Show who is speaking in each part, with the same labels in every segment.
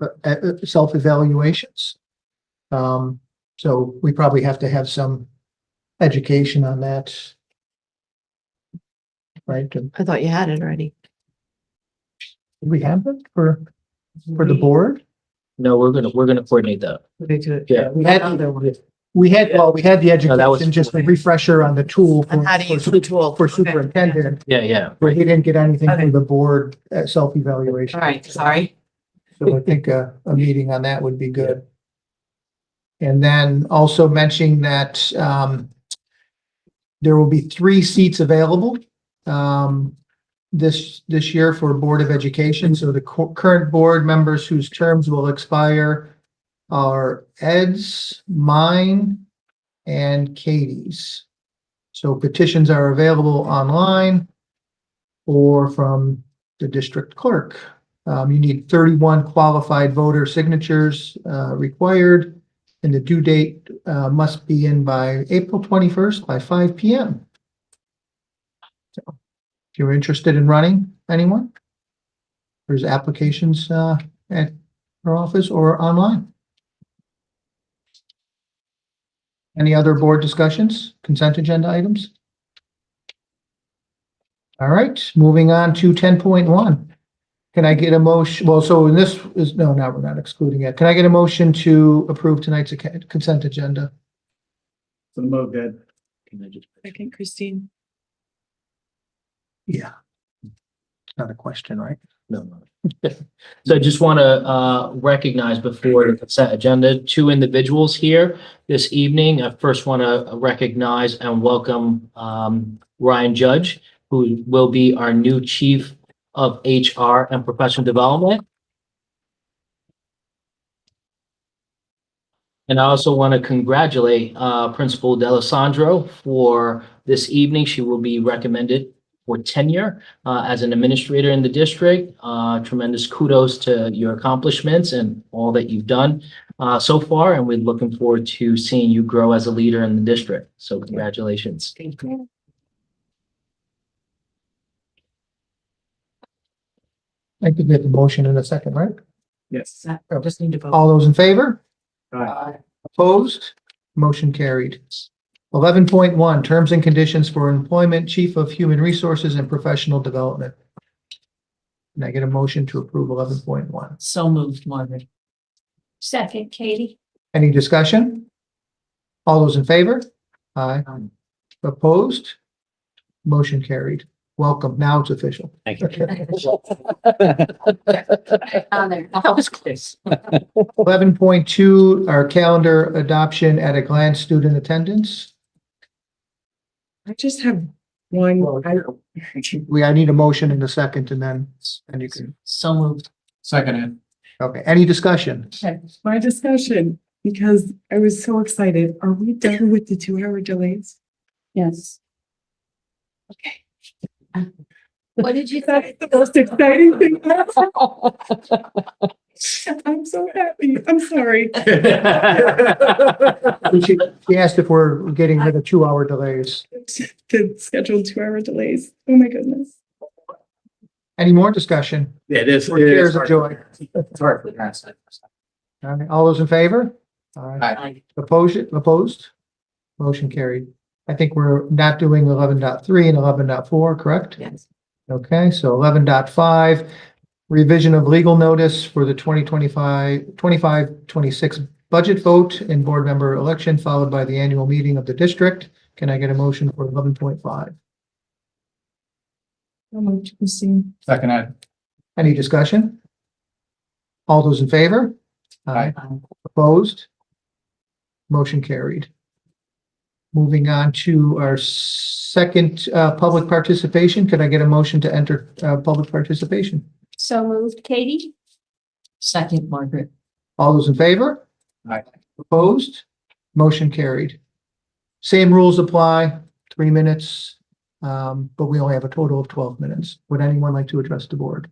Speaker 1: uh, uh, self-evaluations. Um, so we probably have to have some education on that. Right, Do
Speaker 2: I thought you had it already.
Speaker 1: we have it for, for the board?
Speaker 3: No, we're gonna, we're gonna coordinate that.
Speaker 2: We do it.
Speaker 3: Yeah.
Speaker 2: We had other ones.
Speaker 1: We had, well, we had the
Speaker 3: No, that was-
Speaker 1: education, just a refresher on the tool. for-
Speaker 2: And how to
Speaker 1: for
Speaker 2: use
Speaker 1: su-
Speaker 2: the tool.
Speaker 1: For
Speaker 2: Okay.
Speaker 1: superintendent,
Speaker 3: Yeah, yeah.
Speaker 1: where he didn't get anything
Speaker 2: Okay.
Speaker 1: from the board uh, self-evaluation.
Speaker 2: All right, sorry.
Speaker 1: So I think a, a meeting on that would be good. And then also mentioning that, um, there will be three seats available, um, this, this year for Board of Education. So the cu- current board members whose terms will expire are Ed's, mine, and Katie's. So petitions are available online or from the district clerk. Um, you need thirty-one qualified voter signatures, uh, required. And the due date, uh, must be in by April twenty-first by five P M. So, If you're interested in running, anyone? There's applications, uh, at our office or online. Any other board discussions, consent agenda items? All right, moving on to ten point one. Can I get a motion? Well, so in this is, no, now we're not excluding it. Can I get a motion to approve tonight's ac- consent agenda?
Speaker 4: So move good.
Speaker 3: Can I just-
Speaker 2: Second, Christine.
Speaker 1: Yeah. Not a question, right?
Speaker 3: No, no. So I just want to uh recognize before the consent agenda, two individuals here this evening. I first want to recognize and welcome um Ryan Judge, who will be our new Chief of HR and Professional Development. And I also want to congratulate uh Principal Delisandro for this evening. She will be recommended for tenure uh, as an administrator in the district. Uh, tremendous kudos to your accomplishments and all that you've done uh, so far. And we're looking forward to seeing you grow as a leader in the district. So congratulations.
Speaker 2: Thank you.
Speaker 1: I could get the motion in a second, right?
Speaker 4: Yes.
Speaker 2: Just need to vote.
Speaker 1: All those in favor?
Speaker 4: Aye.
Speaker 1: Opposed? Motion carried. Eleven point one, terms and conditions for employment, Chief of Human Resources and Professional Development. Can I get a motion to approve eleven point one?
Speaker 2: So moved, Margaret.
Speaker 5: Second, Katie.
Speaker 1: Any discussion? All those in favor? Aye.
Speaker 2: Aye.
Speaker 1: Opposed? Motion carried. Welcome. Now it's official.
Speaker 3: Thank
Speaker 5: On there. That was close.
Speaker 1: Eleven point two, our calendar adoption at a glance, student attendance.
Speaker 2: I just have one.
Speaker 1: We, I need a motion in a second and then, and you can,
Speaker 2: So moved.
Speaker 4: Seconded.
Speaker 1: okay, any discussion?
Speaker 6: my discussion, because I was so excited. Are we done with the two hour delays?
Speaker 5: Yes. Okay. What did you say?
Speaker 6: That's the most exciting thing. ever. I'm so happy. I'm sorry.
Speaker 1: She she asked if we're getting rid of two-hour delays.
Speaker 6: The scheduled two hour delays. Oh, my goodness.
Speaker 1: Any more discussion?
Speaker 4: Yeah, it is.
Speaker 1: Or tears of joy?
Speaker 4: It's hard for parents.
Speaker 1: All right, All those in favor? Aye.
Speaker 2: Aye.
Speaker 1: Opposed, opposed? Motion carried. I think we're not doing 11.3 and 11.4, correct?
Speaker 2: Yes.
Speaker 1: Okay, so 11.5 revision of legal notice for the 2025 25, 26 budget vote and board member election, followed by the annual meeting of the district. Can I get a motion for eleven point five?
Speaker 6: So moved, Christine.
Speaker 4: Seconded.
Speaker 1: Any discussion? All those in favor?
Speaker 4: Aye.
Speaker 2: Uh,
Speaker 1: Opposed? Motion carried. Moving on to our second uh, public participation. Could I get a motion to enter uh, public participation?
Speaker 5: So moved, Katie.
Speaker 2: Second, Margaret.
Speaker 1: All those in favor?
Speaker 4: Aye.
Speaker 1: Opposed? Motion carried. Same rules apply, three minutes, um, but we only have a total of 12 minutes. Would anyone like to address the board?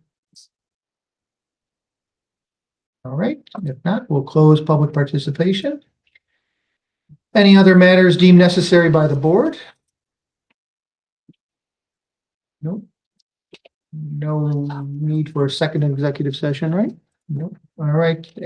Speaker 1: All right, if not, we'll close public participation. Any other matters deemed necessary by the board? Nope. No need for a second executive session, right? Nope. All right,